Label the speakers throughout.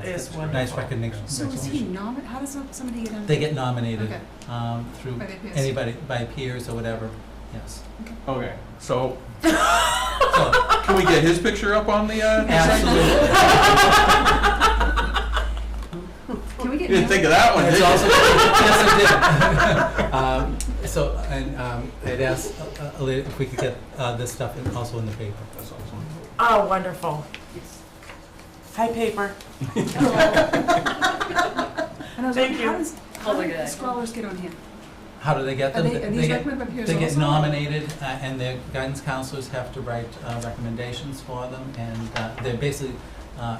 Speaker 1: That's wonderful.
Speaker 2: nice recognition.
Speaker 3: So is he
Speaker 2: recognition.
Speaker 3: nominated? How does some- somebody get on?
Speaker 2: They get nominated
Speaker 3: Okay.
Speaker 2: um, through
Speaker 3: By their peers.
Speaker 2: anybody, by peers or whatever, yes.
Speaker 1: Okay, so
Speaker 2: So,
Speaker 1: can we get his picture up on the, uh?
Speaker 2: Absolutely.
Speaker 3: Can we get?
Speaker 1: You didn't think of that one, did
Speaker 2: It's
Speaker 1: you?
Speaker 2: also, yes, I did. Um, So, and um, I'd ask uh, uh, Elaine if we could get uh, this stuff in- also in the paper.
Speaker 1: That's awesome.
Speaker 4: Oh, wonderful. Hi, paper.
Speaker 3: And I
Speaker 4: Thank
Speaker 3: was like,
Speaker 4: you.
Speaker 3: how does, how
Speaker 5: Oh my
Speaker 3: do
Speaker 5: God.
Speaker 3: scholars get on here?
Speaker 2: How do they get
Speaker 3: Are
Speaker 2: them?
Speaker 3: they, are these
Speaker 2: get-
Speaker 3: recommended by peers
Speaker 2: They get
Speaker 3: also?
Speaker 2: nominated, uh, and their guidance counselors have to write uh, recommendations for them, and uh, they're basically, uh,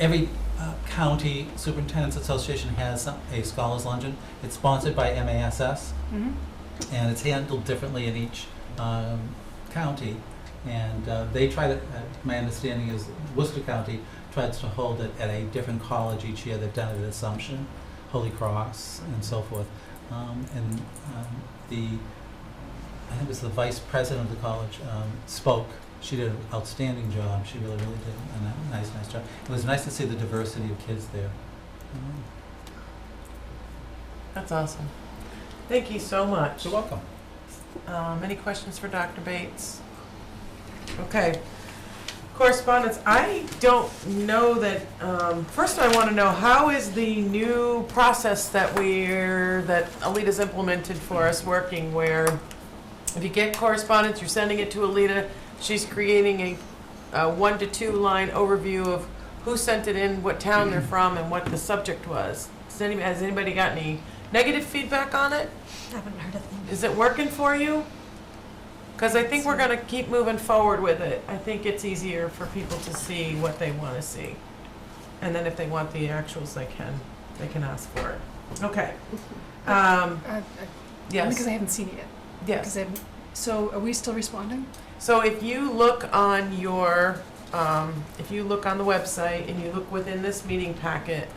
Speaker 2: every uh, county superintendent's association has some- a scholars luncheon. It's sponsored by MASS,
Speaker 3: Mhm.
Speaker 2: and it's handled differently in each um, county. And uh, they try to, uh, my understanding is Worcester County tries to hold it at a different college each year. They've done it at Assumption, Holy Cross, and so forth. Um, And um, the, I think it was the vice president of the college um, spoke. She did an outstanding job. She really, really did a ni- nice, nice job. It was nice to see the diversity of kids there. Um,
Speaker 4: That's awesome. Thank you so much.
Speaker 2: You're welcome.
Speaker 4: Um, any questions for Dr. Bates? Okay. Correspondence, I don't know that, um, first I want to know, how is the new process that we're, that Alita's implemented for us working where if you get correspondence, you're sending it to Alita, she's creating a, a one to two line overview of who sent it in, what town they're from, and what the subject was. Does any, has anybody got any negative feedback on it?
Speaker 5: Haven't heard of them.
Speaker 4: Is it working for you? Because I think we're gonna keep moving forward with it. I think it's easier for people to see what they want to see. And then if they want the actuals, they can, they can ask for it. Okay. Um,
Speaker 3: Uh, uh, Because
Speaker 4: yes,
Speaker 3: I haven't seen it yet.
Speaker 4: yes.
Speaker 3: Because I haven't, so are we still responding?
Speaker 4: So if you look on your, um, if you look on the website and you look within this meeting packet,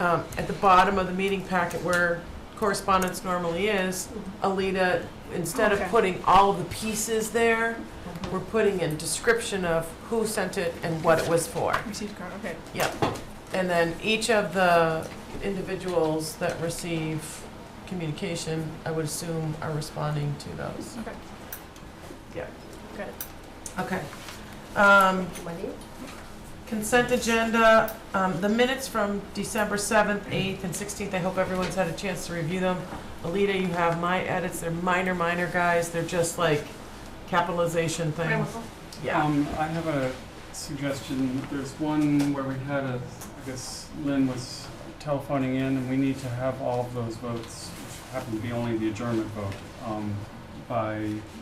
Speaker 4: um, at the bottom of the meeting packet where correspondence normally is, Alita, instead of
Speaker 3: Okay.
Speaker 4: putting all the pieces there, we're putting in description of who sent it and what it was for.
Speaker 3: Received card, okay.
Speaker 4: And then each of the individuals that receive communication, I would assume, are responding to those.
Speaker 3: Okay.
Speaker 4: Yeah.
Speaker 3: Got it.
Speaker 4: Okay. Um,
Speaker 5: Money?
Speaker 4: Consent agenda, um, the minutes from December 7th, 8th, and 16th, I hope everyone's had a chance to review them. Alita, you have my edits, they're minor, minor guys, they're just like capitalization things. Yeah.
Speaker 6: Um, I have a suggestion. Mm, There's one where we had a, I guess Lynn was telephoning in, and we need to have all of those votes, which happen to be only the adjournment vote, um, by,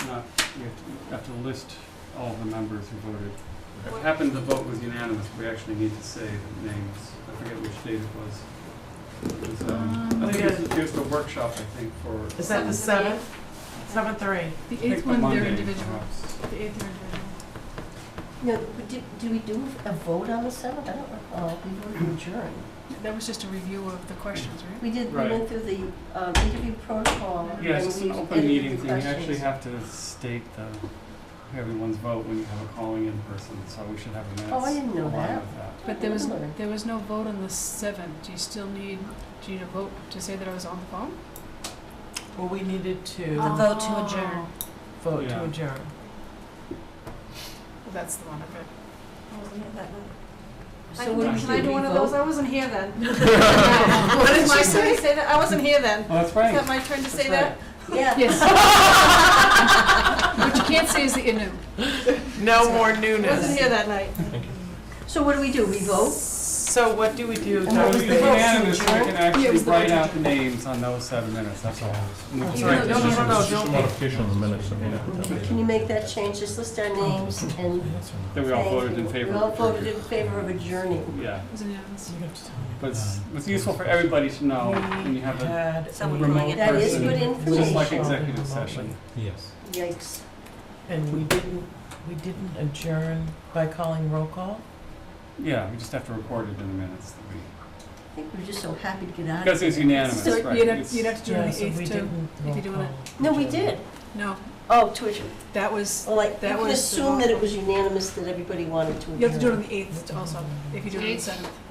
Speaker 6: not, we have to, we have to list all of the members who voted. It happened the vote was unanimous, we actually need to say the names. I forget which date it was. It was, um, I
Speaker 4: Um,
Speaker 6: think it was, it was the workshop, I think, for.
Speaker 4: Is that the 7th? 7th or 8th?
Speaker 3: The
Speaker 6: I think
Speaker 3: eighth
Speaker 6: the
Speaker 3: one, they're
Speaker 6: Monday,
Speaker 3: individual.
Speaker 6: perhaps.
Speaker 3: The eighth, they're individual.
Speaker 5: No, but did, do we do a vote on the seventh? I don't recall. Oh, We voted to adjourn.
Speaker 3: That was just a review of the questions, right?
Speaker 5: We did, we
Speaker 6: Right.
Speaker 5: went through the um, interview protocol.
Speaker 6: Yeah,
Speaker 5: and
Speaker 6: it's just
Speaker 5: we
Speaker 6: an open
Speaker 5: edited
Speaker 6: meeting
Speaker 5: the
Speaker 6: thing, you actually
Speaker 5: questions.
Speaker 6: have to state the, everyone's vote when you have a calling in person, so we should have a minutes.
Speaker 5: Oh, I didn't know
Speaker 6: aligned
Speaker 5: that.
Speaker 6: with
Speaker 3: But there was,
Speaker 5: Remember.
Speaker 3: there was no vote on the seventh. Do you still need, do you need a vote to say that I was on the phone?
Speaker 4: Well, we needed
Speaker 5: The
Speaker 4: to
Speaker 7: Oh.
Speaker 5: vote to adjourn.
Speaker 4: vote to
Speaker 6: Yeah.
Speaker 4: adjourn.
Speaker 3: Oh, That's the one, okay.
Speaker 5: So what
Speaker 6: Can
Speaker 5: did
Speaker 6: I do
Speaker 5: we
Speaker 7: one of those?
Speaker 5: vote?
Speaker 7: I wasn't here then.
Speaker 4: What did you say?
Speaker 7: Say that, I wasn't here then.
Speaker 6: Well, that's
Speaker 7: Is that
Speaker 6: right.
Speaker 7: my turn to say
Speaker 4: That's
Speaker 7: that?
Speaker 4: right.
Speaker 5: Yeah.
Speaker 3: Yes. What you can't say is that you knew.
Speaker 4: No more
Speaker 7: I wasn't
Speaker 4: newness.
Speaker 7: here that night.
Speaker 5: So what do we do? We vote?
Speaker 4: So what do we do,
Speaker 5: And
Speaker 4: Dr.
Speaker 6: If
Speaker 5: what was
Speaker 6: it's
Speaker 5: the vote?
Speaker 4: Bates?
Speaker 6: unanimous, we
Speaker 3: Yeah,
Speaker 6: can
Speaker 3: it
Speaker 6: actually
Speaker 3: was the vote
Speaker 6: write
Speaker 3: to
Speaker 6: out the names on those seven minutes, that's all. And we can
Speaker 4: That's
Speaker 6: write
Speaker 4: right.
Speaker 6: the
Speaker 4: No, no, no,
Speaker 6: names.
Speaker 4: no, don't.
Speaker 8: Modification of the minutes. that we have.
Speaker 5: Can you make that change? Just list our names and.
Speaker 6: That we all
Speaker 5: say-
Speaker 6: voted in favor.
Speaker 5: We all voted in favor of adjourning.
Speaker 6: Yeah,
Speaker 3: It was unanimous.
Speaker 6: but it's, it's useful for everybody to know when you have a
Speaker 4: Had
Speaker 5: Someone
Speaker 6: remote person.
Speaker 5: That is good
Speaker 6: It's just like
Speaker 5: information.
Speaker 6: executive session.
Speaker 2: Yes.
Speaker 5: Yikes.
Speaker 4: And we didn't, we didn't adjourn by calling roll call?
Speaker 6: Yeah, we just have to record it in the minutes. that we-
Speaker 5: I think we're just so happy to get out of
Speaker 6: Because
Speaker 5: here.
Speaker 6: it's unanimous,
Speaker 3: So
Speaker 6: right?
Speaker 3: you'd have,
Speaker 6: It's-
Speaker 3: you'd have to do it on the
Speaker 4: so we
Speaker 3: eighth too.
Speaker 4: didn't
Speaker 3: you
Speaker 4: roll
Speaker 3: do it.
Speaker 4: call.
Speaker 5: No, we did.
Speaker 3: No,
Speaker 5: Oh, to adjourn.
Speaker 3: that was,
Speaker 5: Well, like,
Speaker 3: That
Speaker 5: you
Speaker 3: was
Speaker 5: can
Speaker 3: uh, the
Speaker 5: assume that it was unanimous that everybody wanted to adjourn.
Speaker 3: you have to do it on the eighth also, if you do it on the seventh.